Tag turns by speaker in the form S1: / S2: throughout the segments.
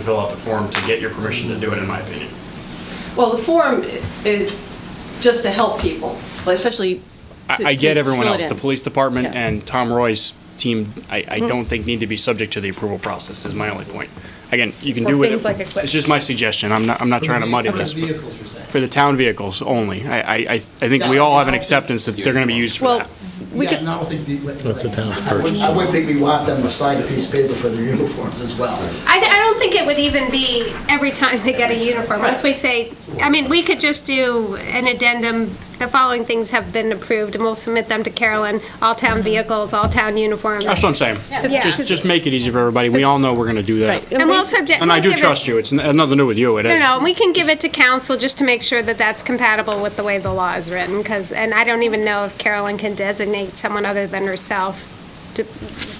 S1: fill out the form to get your permission to do it, in my opinion.
S2: Well, the form is just to help people, well, especially.
S1: I,
S2: to-
S1: I get
S2: to
S1: everyone
S2: fill it
S1: else, the
S2: in.
S1: police department
S2: Yeah.
S1: and Tom Roy's team, I, I don't think need to be subject to the approval process, is my only point. Again, you can
S3: For
S1: do with it.
S3: things like equip-
S1: It's just my suggestion, I'm not, I'm not trying to muddy this. but-
S4: Vehicles, you're saying?
S1: For the town vehicles only, I, I, I I think we all have an acceptance that they're gonna be used for
S2: Well,
S1: that.
S2: we
S4: Yeah,
S2: could,
S4: and I don't think the.
S5: Let the towns
S4: I wouldn't- I wouldn't think we want them to sign a piece of paper for their uniforms as well.
S6: I, I don't think it would even be every time they get a uniform. Once we say, I mean, we could just do an addendum, the following things have been approved, and we'll submit them to Carolyn, all town vehicles, all town uniforms.
S1: That's what I'm saying.
S6: Yeah.
S1: Just, just make it easy for everybody, we all know we're gonna do that.
S2: right.
S6: And we'll subject.
S1: And I
S6: we'll
S1: do
S6: give it-
S1: trust you, it's n- nothing new with you, it
S6: No,
S1: is.
S6: no, and we can give it to council just to make sure that that's compatible with the way the law is written, because, and I don't even know if Carolyn can designate someone other than herself to,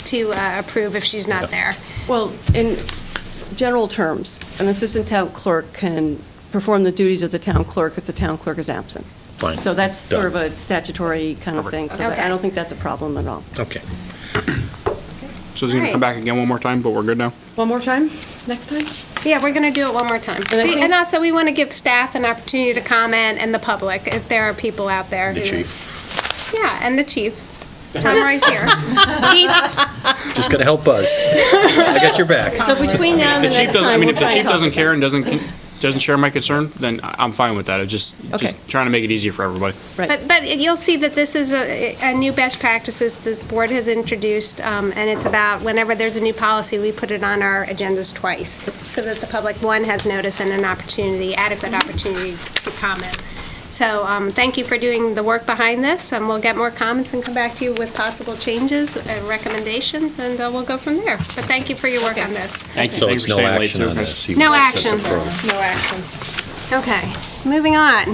S6: to uh, approve if she's not there.
S2: well, in general terms, an assistant town clerk can perform the duties of the town clerk if the town clerk is absent.
S5: Fine.
S2: So that's sort of
S5: Done.
S2: a statutory kind of thing, so that- I
S6: Okay.
S2: don't think that's a problem at all.
S5: Okay.
S1: So it's gonna come back again one more time, but we're good now?
S3: One more time, next time?
S6: Yeah, we're going to do it one more time.
S2: And I think-
S6: And also, we want to give staff an opportunity to comment and the public, if there are people out there.
S5: The
S6: who-
S5: chief.
S6: Yeah, and the chief. Tom Roy's here. Chief,
S5: Just gonna help us. I got your back.
S2: So between now and
S1: The
S2: the
S1: chief
S2: next
S1: doesn't, I
S2: time,
S1: mean, if
S2: we'll
S1: the
S2: try and
S1: chief
S2: talk
S1: doesn't
S2: about
S1: care and doesn't, con- doesn't share my concern, then I- I'm fine with that, I'm just,
S2: Okay.
S1: just trying to make it easier for everybody.
S2: it.
S6: but,
S2: Right,
S6: but you'll see that this is a, a new best practices this board has introduced, um, and it's about whenever there's a new policy, we put it on our agendas twice, so that the public, one, has notice and an opportunity, adequate opportunity to comment. So, um, thank you for doing the work behind this, and we'll get more comments and come back to you with possible changes and recommendations, and uh, we'll go from there. But thank you for your work on this.
S1: Thank you,
S5: So
S1: thank you
S5: it's
S1: for
S5: no
S1: staying late
S5: action
S1: too.
S5: on
S1: guys.
S5: this. You
S6: No
S5: want this
S6: action.
S5: approved.
S3: No action.
S6: Okay, moving on.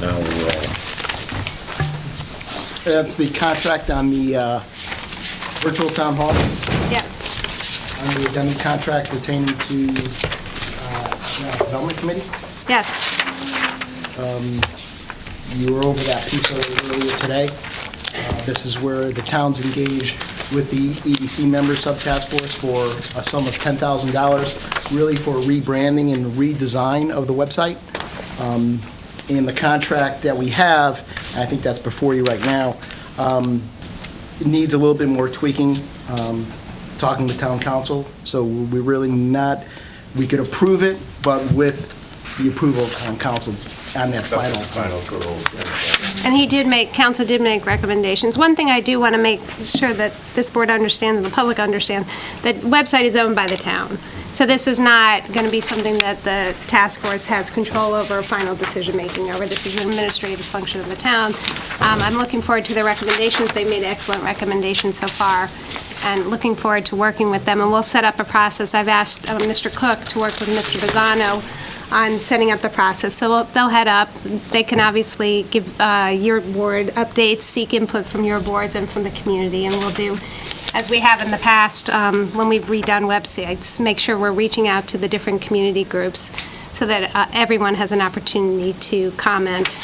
S5: Now we're all.
S4: That's the contract on the uh, virtual town hall,
S6: Yes.
S4: on the addendum contract pertaining to uh, Development Committee.
S6: Yes,
S4: You were over that piece earlier- earlier today. Uh, This is where the town's engaged with the EDC member subtask force for a sum of $10,000, really for rebranding and redesign of the website. Um, And the contract that we have, I think that's before you right now, um, it needs a little bit more tweaking, um, talking with town council. So we really not, we could approve it, but with the approval of town council on that final.
S6: and he did make, council did make recommendations. One thing I do want to make sure that this board understands and the public understands, that website is owned by the town. So this is not going to be something that the task force has control over, final decision-making over. This is an administrative function of the town. Um, I'm looking forward to the recommendations. They made excellent recommendations so far, and looking forward to working with them. And we'll set up a process. I've asked uh, Mr. Cook to work with Mr. Bazzano on setting up the process. So they'll- they'll head up, they can obviously give uh, your board updates, seek input from your boards and from the community, and we'll do, as we have in the past, um, when we've redone websites, make sure we're reaching out to the different community groups so that uh, everyone has an opportunity to comment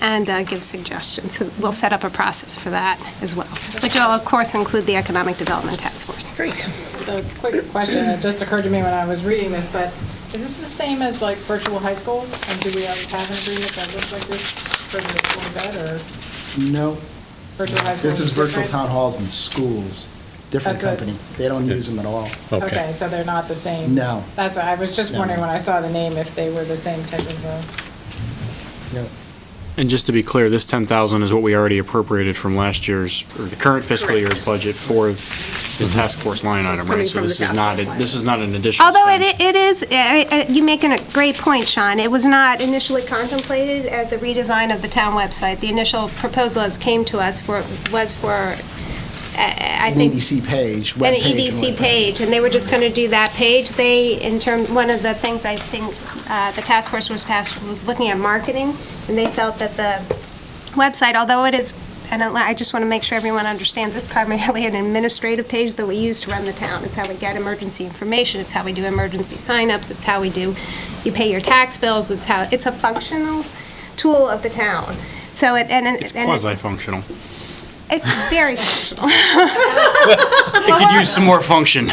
S6: and uh, give suggestions. So we'll set up a process for that as well, which will, of course, include the Economic Development Task Force.
S3: Great.
S7: A quick question that just occurred to me when I was reading this, but is this the same as like virtual high school? And do we have an agreement that looks like this for the school bed or
S4: No,
S7: virtual high school?
S4: this is virtual
S7: different?
S4: town halls and schools, different
S7: That's it.
S4: company. They don't use them at all.
S7: Okay, so they're not the same?
S4: No.
S7: That's why, I was just
S4: No.
S7: wondering when I saw the name if they were the same type of, uh,
S4: No.
S1: And just to be clear, this 10,000 is what we already appropriated from last year's, or the current fiscal year's budget for the task force line item, right?
S3: coming
S1: So
S3: from
S1: this
S3: the
S1: is
S3: task
S1: not,
S3: force line.
S1: this is not an additional
S6: Although it
S1: spend.
S6: i- it is, I- I- you make a great point, Sean. It was not initially contemplated as a redesign of the town website. The initial proposal as came to us for, was for, I I
S4: An
S6: think...
S4: EDC page, web
S6: An E
S4: page. and
S6: EDC
S4: whatnot.
S6: page, and they were just going to do that page. They, in term, one of the things I think uh, the task force was tasked, was looking at marketing, and they felt that the website, although it is, and I I just want to make sure everyone understands, it's primarily an administrative page that we use to run the town. It's how we get emergency information, it's how we do emergency signups, it's how we do, you pay your tax bills, it's how, it's a functional tool of the town. So it, and it...
S1: It's
S6: and it-
S1: quasi-functional.
S6: It's very functional.
S1: It could use some more function.